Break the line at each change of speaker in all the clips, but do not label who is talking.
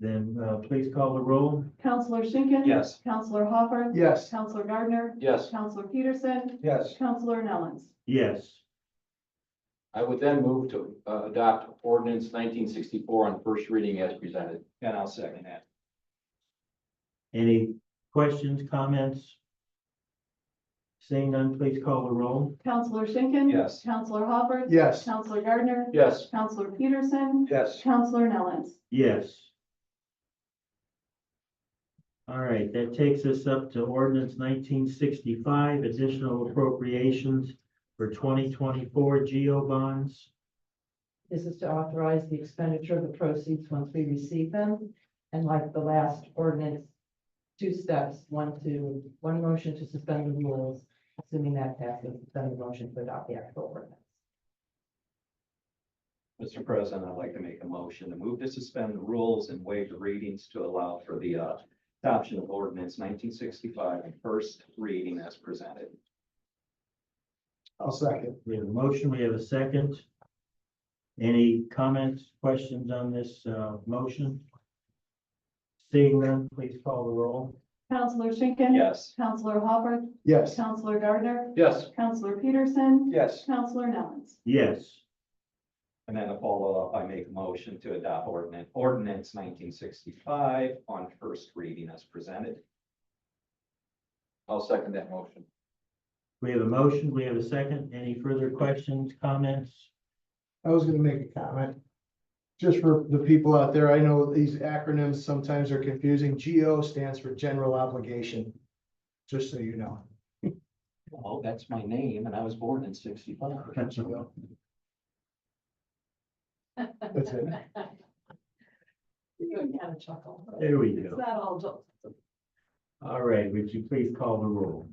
Then uh, please call the roll.
Counselor Schinkin.
Yes.
Counselor Hopper.
Yes.
Counselor Gardner.
Yes.
Counselor Peterson.
Yes.
Counselor Nellens.
Yes.
I would then move to uh, adopt ordinance nineteen sixty-four on first reading as presented.
And I'll second that.
Any questions, comments? Seeing none, please call the roll.
Counselor Schinkin.
Yes.
Counselor Hopper.
Yes.
Counselor Gardner.
Yes,
Counselor Peterson.
Yes.
Counselor Nellens.
Yes. All right, that takes us up to ordinance nineteen sixty-five, additional appropriations for twenty twenty-four GEO bonds.
This is to authorize the expenditure of the proceeds once we receive them. And like the last ordinance, two steps, one to, one motion to suspend the rules, assuming that passes, then the motion to adopt the actual ordinance.
Mr. President, I'd like to make a motion to move to suspend the rules and waive the readings to allow for the uh, adoption of ordinance nineteen sixty-five and first reading as presented. I'll second.
We have a motion, we have a second. Any comments, questions on this uh, motion? Seeing none, please call the roll.
Counselor Schinkin.
Yes.
Counselor Hopper.
Yes.
Counselor Gardner.
yes,
Counselor Peterson.
Yes.
Counselor Nellens.
Yes.
And then a follow-up, I make a motion to adopt ordinance, ordinance nineteen sixty-five on first reading as presented.
I'll second that motion.
We have a motion, we have a second. Any further questions, comments?
I was gonna make a comment. Just for the people out there, I know these acronyms sometimes are confusing. GO stands for general obligation. Just so you know.
Well, Oh, that's my name and I was born in sixty-five.
That's all.
That's it.
You even had a chuckle.
There we
It's
go.
not all jokes.
All right, would you please call the roll?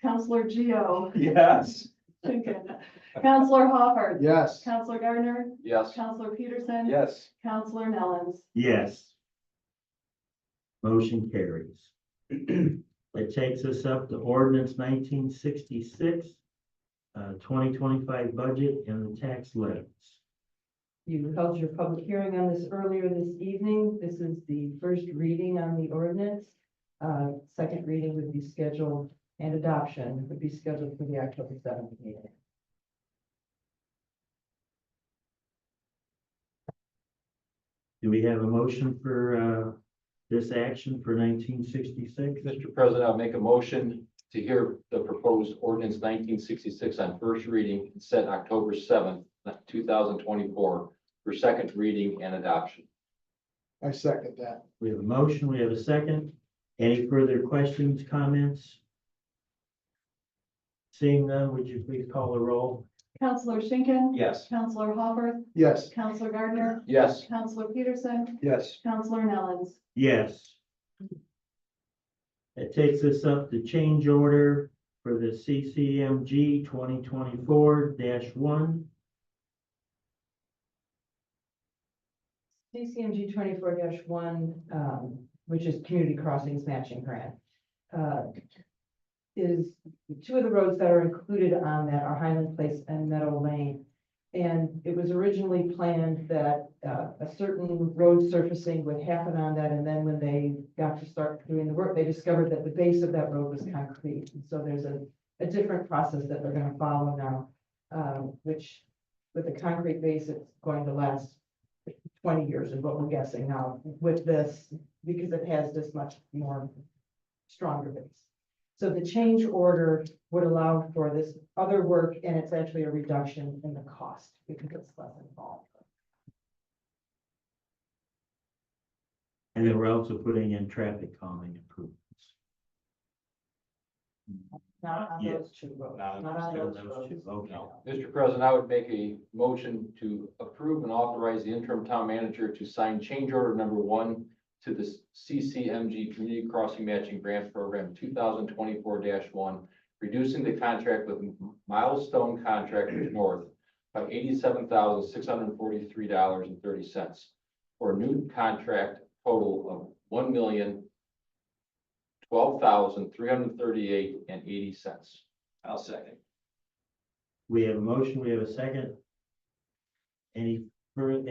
Counselor Geo.
Yes.
Schinkin. Counselor Hopper.
Yes,
Counselor Gardner.
Yes,
Counselor Peterson.
Yes.
Counselor Nellens.
Yes. Motion carries. It takes us up to ordinance nineteen sixty-six, uh, twenty twenty-five budget and the tax levies.
You held your public hearing on this earlier this evening. This is the first reading on the ordinance. Uh, second reading would be scheduled and adoption would be scheduled for the October seventh meeting.
Do we have a motion for, uh, this action for nineteen sixty-six?
Mr. President, I'll make a motion to hear the proposed ordinance nineteen sixty-six on first reading set October seventh, two thousand twenty-four for second reading and adoption.
I second that.
We have a motion, we have a second. Any further questions, comments? Seeing none, would you please call the roll?
Counselor Schinkin.
Yes.
Counselor Hopper.
Yes,
Counselor Gardner.
Yes,
Counselor Peterson.
Yes.
Counselor Nellens.
Yes. It takes us up to change order for the CCMG twenty twenty-four one.
CCMG twenty-four one, um, which is Community Crossings Matching Grant, uh, is, two of the roads that are included on that are Highland Place and Meadow Lane. And it was originally planned that uh, a certain road surfacing would happen on that, and then when they got to start doing the work, they discovered that the base of that road was concrete. And so there's a, a different process that they're gonna follow now, um, which with the concrete base, it's going to last twenty years is what we're guessing now with this, because it has this much more stronger base. So the change order would allow for this other work, and it's actually a reduction in the cost because it's less involved.
And then we're also putting in traffic calming improvements.
Not on
Yes.
those two roads,
Not on
not on
those
those
two,
roads.
okay.
no.
Mr. President, I would make a motion to approve and authorize the interim town manager to sign change order number one to the CCMG Community Crossing Matching Grant Program two thousand twenty-four one, reducing the contract with Milestone Contractors North by eighty-seven thousand six hundred and forty-three dollars and thirty cents for a new contract total of one million twelve thousand three hundred and thirty-eight and eighty cents.
I'll second.
We have a motion, we have a second. Any further,